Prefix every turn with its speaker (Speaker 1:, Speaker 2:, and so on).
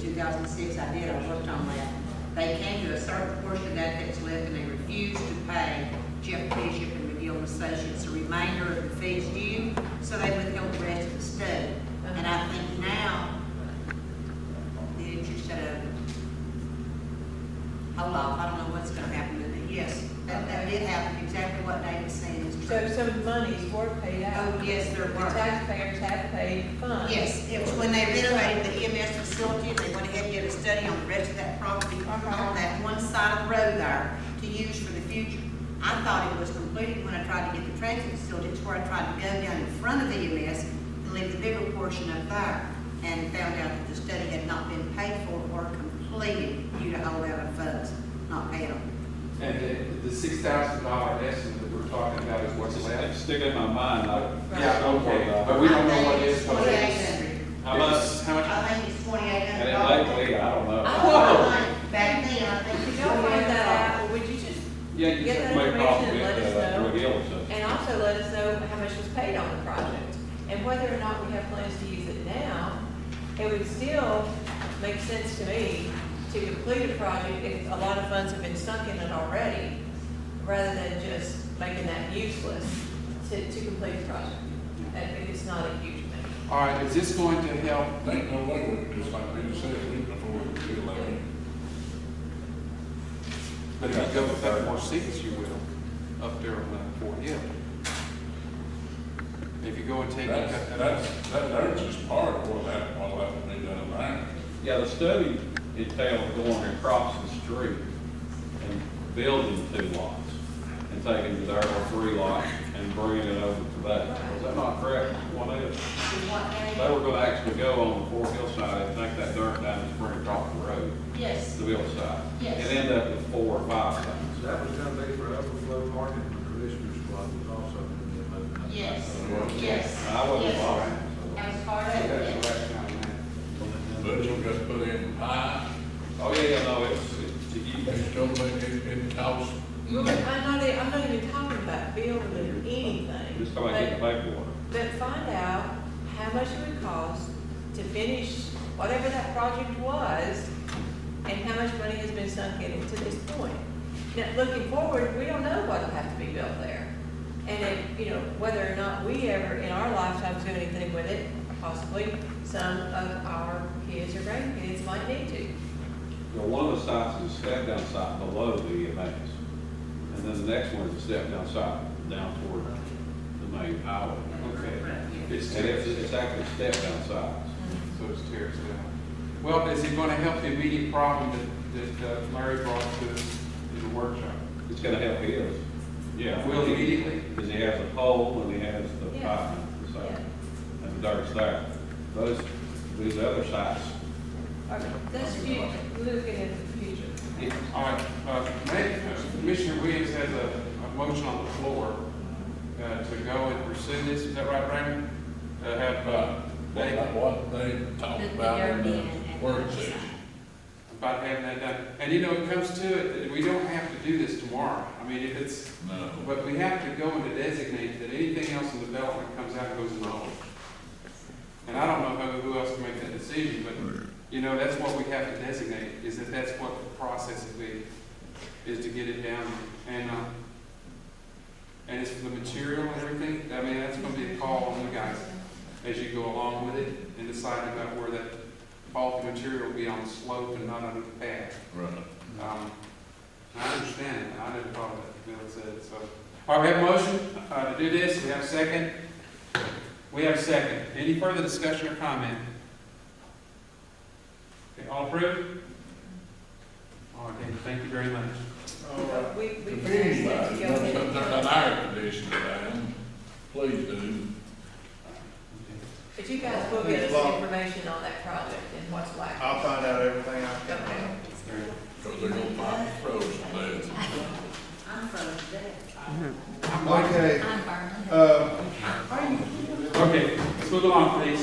Speaker 1: six, I did, I worked on that. They came to a certain portion of that that's left, and they refused to pay Jeff Bishop and McGill and Associates the remainder of the fees due, so they withheld the rest of the study. And I think now, the interest of, hold off, I don't know what's gonna happen, but yes, that, that did happen, exactly what David's saying is
Speaker 2: So
Speaker 1: true.
Speaker 2: some monies were paid out.
Speaker 1: Oh, yes, there
Speaker 2: The
Speaker 1: were.
Speaker 2: taxpayers have paid funds.
Speaker 1: Yes, it was when they renovated the EMS facility, they went ahead and did a study on the rest of that property,
Speaker 2: Uh-huh.
Speaker 1: on that one side of the road there, to use for the future. I thought it was completed when I tried to get the transit facility, it's where I tried to go down in front of the EMS and leave the bigger portion up there, and found out that the study had not been paid for or completed due to all out of funds, not paid on.
Speaker 3: And the, the six thousand dollar estimate that we're talking about is what's
Speaker 4: It's
Speaker 3: left?
Speaker 4: sticking in my mind, I.
Speaker 3: Yeah, okay, but we don't know what it is.
Speaker 1: I think it's $2,800.
Speaker 4: How much, how much,
Speaker 1: I think it's twenty-eight
Speaker 4: and
Speaker 1: hundred
Speaker 4: it
Speaker 1: dollars.
Speaker 4: likely, I don't know.
Speaker 1: I think back then, I think.
Speaker 2: Could
Speaker 1: it's
Speaker 2: y'all find
Speaker 1: $2,800.
Speaker 2: that out, or would you just,
Speaker 4: Yeah, you
Speaker 2: Get that
Speaker 4: may
Speaker 2: information and
Speaker 4: probably,
Speaker 2: let us
Speaker 4: uh,
Speaker 2: know.
Speaker 4: reveal it to us.
Speaker 2: and also let us know how much was paid on the project? And whether or not we have plans to use it now, it would still make sense to me to complete a project if a lot of funds have been sunk in it already, rather than just making that useless to, to complete the project. And it's not a huge amount.
Speaker 3: All right, is this going to help?
Speaker 5: Ain't no way, just like Peter said, we before we feel like it.
Speaker 3: But if you go with that more six, you will, up there on that four hill. If you go and take.
Speaker 5: That's, that's, that, that's just part of what that, all that would be done around.
Speaker 4: Yeah, the study entailed going across the street and building two lots and taking the other three lots and bringing it over to that. Is that not correct? One is, they were gonna actually go on the Fort Hill side and take that dirt down and bring it across the road to
Speaker 1: Yes,
Speaker 4: the Bill side.
Speaker 1: Yes.
Speaker 4: And end up with four or five things.
Speaker 6: That was gonna be for overflow parking for commissioners club was also gonna be a uh, motion.
Speaker 1: yes, yes.
Speaker 4: I wasn't
Speaker 1: Yes.
Speaker 4: involved.
Speaker 1: That was part of
Speaker 3: That's
Speaker 1: it.
Speaker 3: the rationale, man.
Speaker 5: Budget got put in high,
Speaker 4: Oh, yeah, yeah, no, it's, it's, you,
Speaker 5: it's gonna make it, it costs.
Speaker 2: Well, I'm not, e- I'm not even talking about building or anything.
Speaker 4: just talking about getting the paperwork.
Speaker 2: But- But find out how much it would cost to finish whatever that project was and how much money has been sunk in it to this point. Now, looking forward, we don't know what'll have to be built there. And if, you know, whether or not we ever in our lifetimes do anything with it, possibly some of our kids or grandkids might need to.
Speaker 4: You know, one of the sites is a step down site below the EMAs. And then the next one is a step down site down toward the main highway.
Speaker 3: Okay,
Speaker 4: It's, and it's, it's actually step down sites.
Speaker 3: so it's tears down. Well, is it going to help the immediate problem that, that uh, Larry brought to us in the workshop?
Speaker 4: It's gonna help his. Yeah.
Speaker 3: Will immediately?
Speaker 4: Because he has a pole and he has the
Speaker 2: Yeah.
Speaker 4: pipe, so, and the dirt's there. Those, these other sites,
Speaker 2: Or- That's future, looking into the future.
Speaker 3: All right, uh, may- Commissioner Williams has a, a motion on the floor, uh, to go and pursue this, is that right, Raymond? To have, uh,
Speaker 5: That's
Speaker 3: David,
Speaker 5: what they talked about in the work session.
Speaker 3: about having that done, and you know, it comes to it, we don't have to do this tomorrow, I mean, if it's,
Speaker 5: No.
Speaker 3: but we have to go and to designate that anything else in development comes out goes in the hole. And I don't know who, who else can make that decision, but, you know, that's what we have to designate, is that that's what the process would be, is to get it down, and, uh, and it's for the material and everything, I mean, that's gonna be a call on you guys as you go along with it, and decide about where that bulk material will be on the slope and not on the path.
Speaker 5: Right.
Speaker 3: Um, I understand, I didn't follow that, Bill said, so. All right, we have a motion, uh, to do this, we have a second. We have a second. Any further discussion or comment? Okay, all approved? All right, then, thank you very much.
Speaker 2: So we-
Speaker 5: If
Speaker 2: we-
Speaker 5: anybody wants
Speaker 2: Yeah.
Speaker 5: to turn an air conditioner down, please do.
Speaker 2: But you guys will get us information on that project and what's likely.
Speaker 6: I'll find out everything I can.
Speaker 2: Okay.
Speaker 5: Cause they're gonna pop frozen beds.
Speaker 1: I'm from today.
Speaker 3: I'm like-
Speaker 6: Okay,
Speaker 7: I'm Barbara.
Speaker 6: uh,
Speaker 3: Okay, let's move along, please.